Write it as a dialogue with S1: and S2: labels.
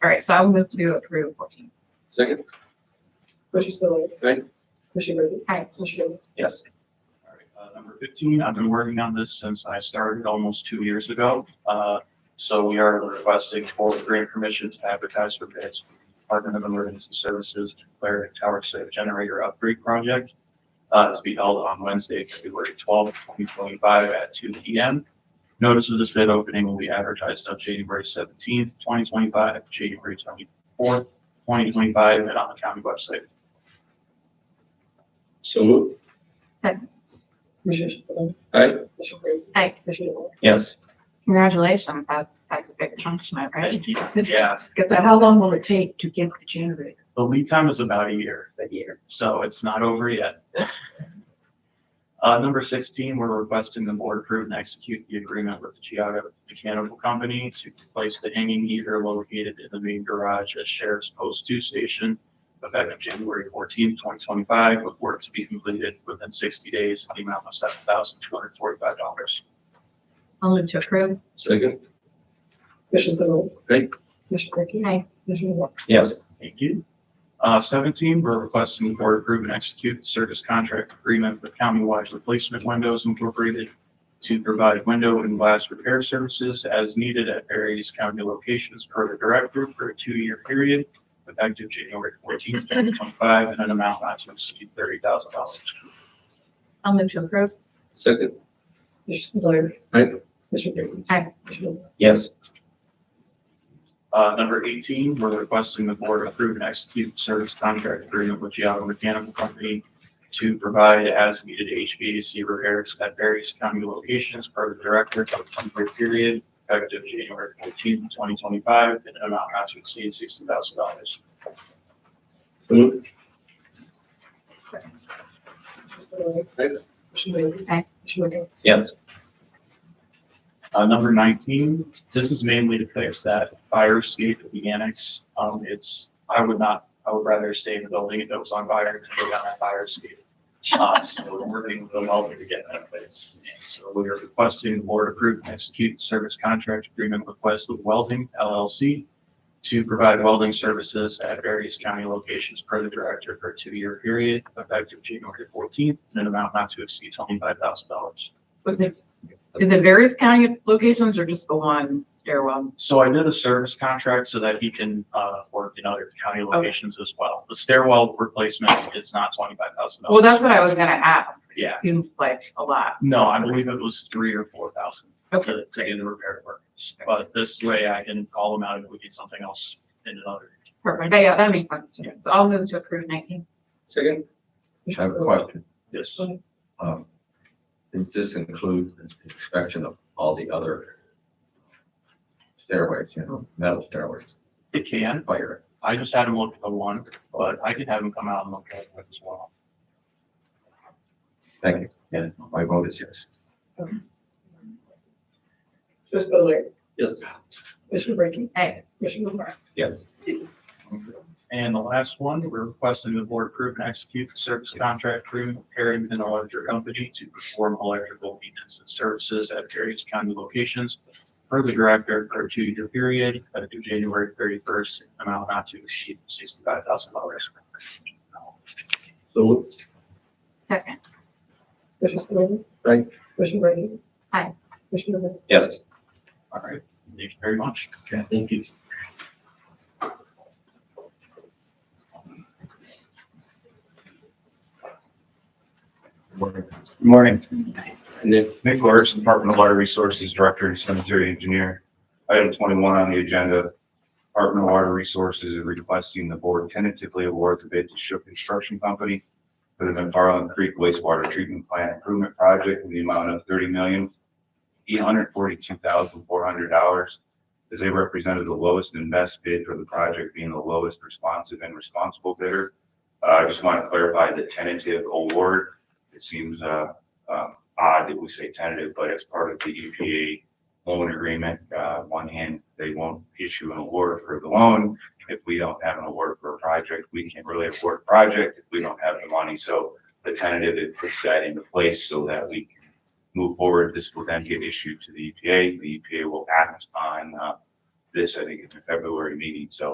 S1: All right, so I will move to approve fourteen.
S2: Second?
S3: Commissioner Spillier.
S2: Aye.
S3: Commissioner Brinkley.
S1: Aye.
S3: Commissioner Davis.
S4: Yes. All right, uh, Number 15, I've been working on this since I started almost two years ago. Uh, So we are requesting for grant permission to advertise for bids, Department of Emergency Services, declare a Tower Safe Generator Upgrade Project. uh, to be held on Wednesday, February 12th, 2025 at 2 PM. Notice of this bid opening will be advertised on January 17th, 2025, January 24th, 2025, and on the county website.
S2: So moved.
S3: Commissioner Spillier.
S2: Aye.
S3: Commissioner Brinkley.
S1: Aye.
S3: Commissioner Davis.
S4: Yes.
S1: Congratulations, that's, that's a big accomplishment, right?
S4: Yeah.
S1: Just Get
S5: But
S1: that
S5: how
S1: help.
S5: long will it take to get the generator?
S4: The lead time is about a year,
S5: A year.
S4: so it's not over yet. Uh, number sixteen, we're requesting the board approve and execute the agreement with the Geoga Mechanical Company to replace the hanging heater located in the main garage at Sheriff's Post Two Station effective January fourteenth, twenty twenty-five, with work to be completed within sixty days, in the amount of seven thousand two hundred forty-five dollars.
S1: I'll move to approve.
S2: Second?
S3: Commissioner Spillier.
S2: Aye.
S3: Commissioner Brinkley.
S1: Aye.
S3: Commissioner Davis.
S4: Yes. Thank you. Uh, seventeen, we're requesting the board approve and execute the service contract agreement with countywide replacement windows incorporated to provide window and glass repair services as needed at various county locations per the direct group for a two-year period effective January fourteenth, twenty twenty-five, and an amount not to exceed thirty thousand dollars.
S1: I'll move to approve.
S2: Second?
S3: Commissioner Spillier.
S2: Aye.
S3: Commissioner Brinkley.
S1: Aye.
S3: Commissioner Davis.
S4: Yes. Uh, number eighteen, we're requesting the board approve and execute service contract agreement with Giada Mechanical Company to provide as needed HVAC repairs at various county locations per the director of the temporary period effective January fourteenth, twenty twenty-five, in an amount not to exceed sixty thousand dollars.
S2: So moved.
S3: Commissioner
S2: Aye.
S3: Spillier. Commissioner Brinkley.
S1: Aye.
S3: Commissioner Davis.
S4: Yes. Uh, number nineteen, this is mainly to fix that fire escape at the annex. Um, it's, I would not, I would rather stay in the building that was on fire than go down that fire escape. Uh, so we're working with the welder to get that fixed. And So we are requesting the board approve and execute service contract agreement with Westwood Welding LLC to provide welding services at various county locations per the director for a two-year period effective January fourteenth in an amount not to exceed twenty-five thousand dollars.
S1: Was it, is it various county locations or just the one stairwell?
S4: So I did a service contract so that he can uh, work in other county locations as well. The stairwell replacement is not twenty-five thousand
S1: Well,
S4: dollars.
S1: that's what I was gonna ask.
S4: Yeah.
S1: Seems like a lot.
S4: No, I believe it was three or four thousand
S1: Okay,
S4: to to get the repair work. But this way I can call him out if we need something else in another.
S1: perfect. Yeah, that makes sense to me. So I'll move to approve nineteen.
S2: Second?
S6: I have
S3: Commissioner
S6: a
S3: Spillier.
S6: question.
S4: This,
S6: Um, Does this include inspection of all the other stairways, you know, metal stairways,
S4: it can.
S6: fire?
S4: I just had him look at the one, but I could have him come out and look at it as well.
S6: Thank you. And my vote is yes.
S3: Commissioner Spillier.
S2: Yes.
S3: Commissioner Brinkley.
S1: Aye.
S3: Commissioner Davis.
S4: And the last one, we're requesting the board approve and execute the service contract agreement with Harrington Electric Company to perform electrical maintenance and services at various county locations per the director for a two-year period, uh, due January thirty-first, amount not to exceed sixty-five thousand dollars.
S2: So moved.
S1: Second.
S3: Commissioner Spillier.
S2: Aye.
S3: Commissioner Brinkley.
S1: Aye.
S3: Commissioner Davis.
S6: Yes.
S4: All right, thank you very much.
S2: Thank you.
S7: Good Morning.
S2: And then,
S7: Nick Lawrence, Department of Water Resources Director and Cemetery Engineer. Item 21 on the agenda, Department of Water Resources is requesting the board tentatively award the bid to Shook Construction Company for the McFarland Creek wastewater treatment plant improvement project in the amount of $30,842,400 as they represented the lowest and best bid for the project being the lowest responsive and responsible bidder. Uh, I just want to clarify the tentative award. It seems uh, uh, odd that we say tentative, but as part of the EPA loan agreement, uh, on one hand, they won't issue an award for the loan. If we don't have an award for a project, we can't really afford a project if we don't have the money. So the tentative is puts that into place so that we can move forward. This will then get E issued to the EPA. The EPA will act on, uh, this, I think, in the February meeting. So